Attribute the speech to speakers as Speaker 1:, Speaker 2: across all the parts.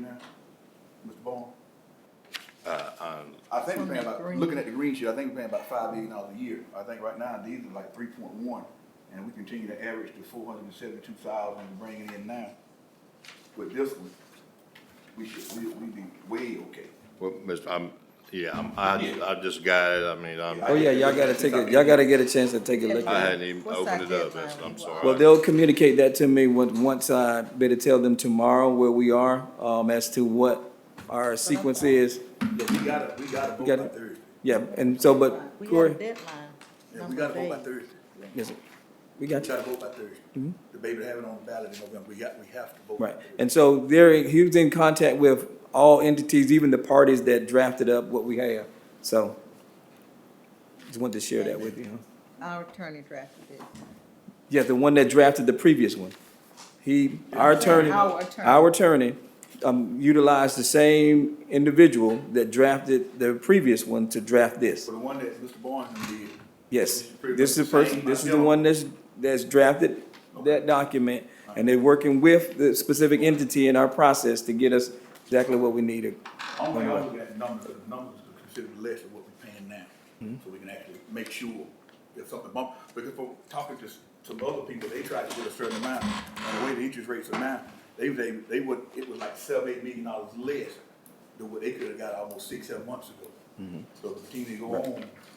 Speaker 1: now, Mr. Bowen?
Speaker 2: Uh, um,
Speaker 1: I think we're paying about,
Speaker 3: Twenty-three.
Speaker 1: looking at the green sheet, I think we're paying about five million dollars a year. I think right now, these are like three point one, and we continue to average to four hundred and seventy-two thousand to bring it in now. With this one, we should, we, we be way okay.
Speaker 2: well, Mr., I'm, yeah, I'm, I, I just got it, I mean, I'm,
Speaker 3: Oh, yeah, y'all gotta take it, y'all gotta get a chance to take a look
Speaker 2: I
Speaker 3: at it.
Speaker 2: hadn't even
Speaker 4: What's our
Speaker 2: opened it up,
Speaker 4: deadline?
Speaker 2: Mr. I'm
Speaker 3: Well,
Speaker 2: sorry.
Speaker 3: they'll communicate that to me on- once I better tell them tomorrow where we are, um, as to what our sequence is.
Speaker 1: Yeah, we gotta, we gotta vote
Speaker 3: got
Speaker 1: by
Speaker 3: it.
Speaker 1: Thursday.
Speaker 3: Yeah, and so, but
Speaker 4: We have a
Speaker 3: Corey,
Speaker 4: deadline.
Speaker 1: Yeah, we
Speaker 4: number
Speaker 1: gotta vote by
Speaker 4: eight.
Speaker 1: Thursday.
Speaker 3: yes, sir. we
Speaker 1: We
Speaker 3: got you.
Speaker 1: gotta vote by Thursday. The baby have it on the ballot in November. We got, we have to vote. by
Speaker 3: Mm-hmm. Right,
Speaker 1: Thursday.
Speaker 3: and so there, he was in contact with all entities, even the parties that drafted up what we have, so. Just wanted to share that with you. huh?
Speaker 4: Our attorney drafted it.
Speaker 3: Yeah, the one that drafted the previous one. He, our attorney,
Speaker 4: Our attorney.
Speaker 3: our attorney, um, utilized the same individual that drafted the previous one to draft this.
Speaker 1: So the one that Mr. Barnes did,
Speaker 3: Yes, this is the person, this is the one that's, that's drafted that document, and they're working with the specific entity in our process to get us exactly what we needed.
Speaker 1: only I'm looking at numbers, the numbers are considered less than what we're paying now. So we can actually make sure if something bump, because for talking to, s- to other people, they tried to get a certain amount. And the way the interest rates are now, they, they, they would, it was like seven, eight million dollars less than what they could have got almost six, seven months ago. So continue to go on,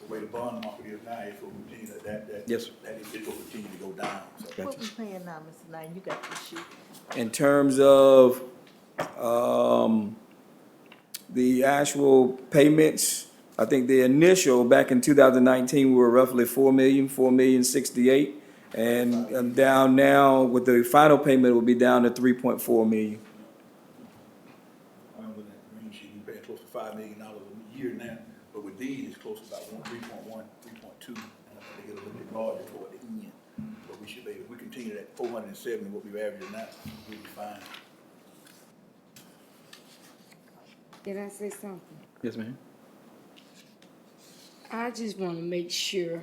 Speaker 1: the way the bond market is now, it's gonna continue to, that, that.
Speaker 3: Yes.
Speaker 1: That is, it's gonna continue to go down, so.
Speaker 4: What we paying now, Mr. Knight, you got the sheet.
Speaker 3: In terms of, um, the actual payments, I think the initial, back in two thousand nineteen, we were roughly four million, four million sixty-eight. And um, down now, with the final payment, will be down to three point four million.
Speaker 1: I'm looking at the green sheet, we're paying close to five million dollars a year now, but with these, it's close to about one, three point one, three point two. And I think they get a little bit larger toward the end, but we should be, if we continue that four hundred and seventy, what we've averaging now, we'll be fine.
Speaker 5: Did I say something?
Speaker 3: Yes, ma'am.
Speaker 5: I just want to make sure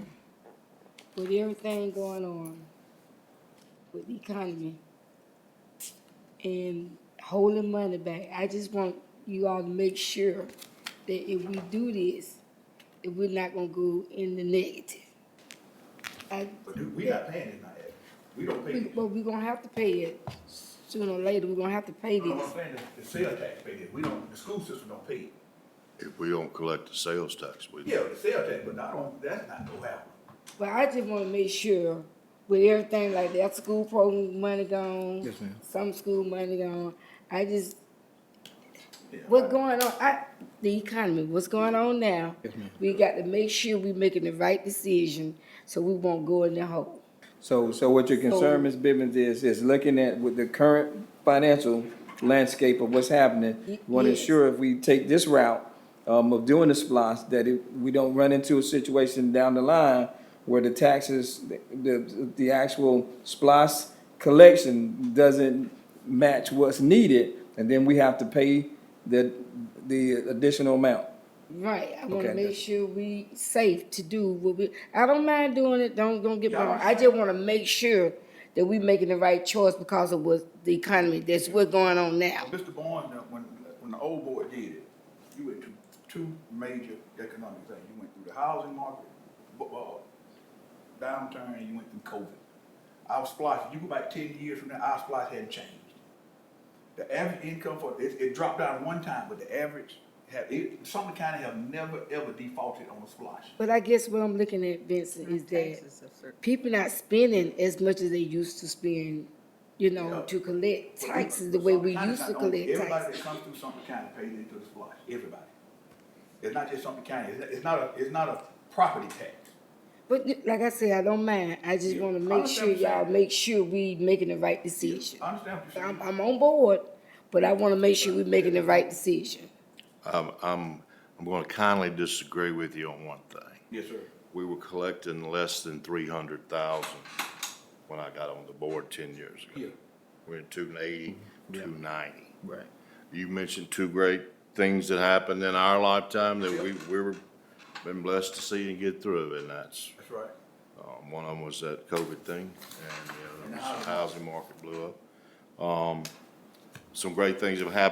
Speaker 5: with everything going on with the economy and holding money back, I just want you all to make sure that if we do this, that we're not going to go in the negative. I,
Speaker 1: But dude, we not paying it now, Ed. we don't pay
Speaker 5: we-
Speaker 1: it.
Speaker 5: but we're going to have to pay it sooner or later. We're going to have to pay
Speaker 1: No,
Speaker 5: this.
Speaker 1: I'm saying the- the sales tax pay it, we don't, the school system don't pay it.
Speaker 2: If we don't collect the sales tax, we,
Speaker 1: Yeah, the sales tax, but not on, that's not gonna happen.
Speaker 5: But I just want to make sure with everything like that school program money gone,
Speaker 3: Yes, ma'am.
Speaker 5: some school money gone. I just
Speaker 1: Yeah,
Speaker 5: what going on? I the economy. What's going on now?
Speaker 3: Yes, ma'am.
Speaker 5: We got to make sure we making the right decision so we won't go in the hole.
Speaker 3: So, so what your
Speaker 5: So-
Speaker 3: concern, Ms. Bivens, is, is looking at with the current financial landscape of what's happening,
Speaker 5: Y-
Speaker 3: you want to
Speaker 5: yes.
Speaker 3: ensure if we take this route, um, of doing the splosh, that it, we don't run into a situation down the line where the taxes, the- the, the actual splosh collection doesn't match what's needed, and then we have to pay the, the additional amount.
Speaker 5: Right. I want to
Speaker 3: Okay,
Speaker 5: make
Speaker 3: that's-
Speaker 5: sure we safe to do what we. I don't mind doing it. Don't don't get me
Speaker 1: Yeah, I
Speaker 5: wrong. I just want to make sure that we making the right choice because of what the economy. That's what's going on now.
Speaker 1: Mr. Barnes, uh, when, when the old board did it, you went through two major economic things. You went through the housing market, bu- uh, downturn, and you went through COVID. Our splash, you go back ten years from now, our splash hadn't changed. The average income for, it, it dropped down one time, but the average have, it, Sumner County have never, ever defaulted on a splash.
Speaker 5: But I guess what I'm looking at, Vincent, is that
Speaker 4: Taxes are certain.
Speaker 5: people not spending as much as they used to spend, you
Speaker 1: Yeah.
Speaker 5: know, to collect
Speaker 1: Well, we-
Speaker 5: taxes the way we
Speaker 1: Sumter
Speaker 5: used to
Speaker 1: County's not
Speaker 5: collect
Speaker 1: the only- Everybody
Speaker 5: taxes.
Speaker 1: that comes through Sumter County pays into the splash, everybody. It's not just Sumter County, it's, it's not a, it's not a property tax.
Speaker 5: But y- like I said, I don't mind. I just
Speaker 1: Yeah.
Speaker 5: wanna
Speaker 1: I
Speaker 5: make
Speaker 1: understand
Speaker 5: sure
Speaker 1: what you're
Speaker 5: y'all
Speaker 1: saying.
Speaker 5: make sure we making the right decision.
Speaker 1: I understand what you're saying.
Speaker 5: I'm, I'm on board, but I wanna make sure we making the right decision.
Speaker 2: I'm, I'm, I'm gonna kindly disagree with you on one thing.
Speaker 1: Yes, sir.
Speaker 2: We were collecting less than three hundred thousand when I got on the board ten years ago.
Speaker 1: Yeah.
Speaker 2: We're at two eighty, two ninety.
Speaker 3: Right.
Speaker 2: You mentioned two great things that happened in our lifetime that we, we were, been blessed to see and get through, and that's,
Speaker 1: That's right.
Speaker 2: um, one of them was that COVID thing, and the other was the housing market blew up. Um, some great things have happened